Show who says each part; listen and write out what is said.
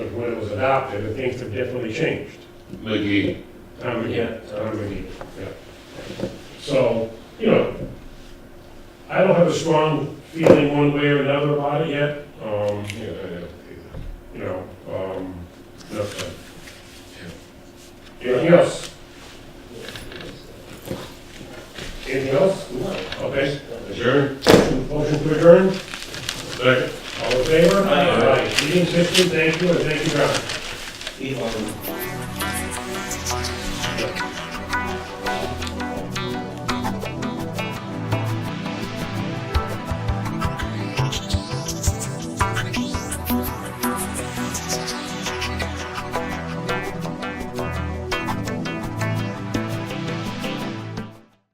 Speaker 1: adopted, and things have definitely changed.
Speaker 2: McGee.
Speaker 1: Tom McGee, Tom McGee, yeah. So, you know, I don't have a strong feeling one way or another about it yet. Um,
Speaker 2: Yeah, yeah.
Speaker 1: you know, um, nothing. Anything else? Anything else? Okay.
Speaker 2: Adjourn?
Speaker 1: Motion to adjourn?
Speaker 2: Second.
Speaker 1: All in favor?
Speaker 3: Aye.
Speaker 1: Meeting fifteen, thank you, and thank you, John.
Speaker 3: Elon.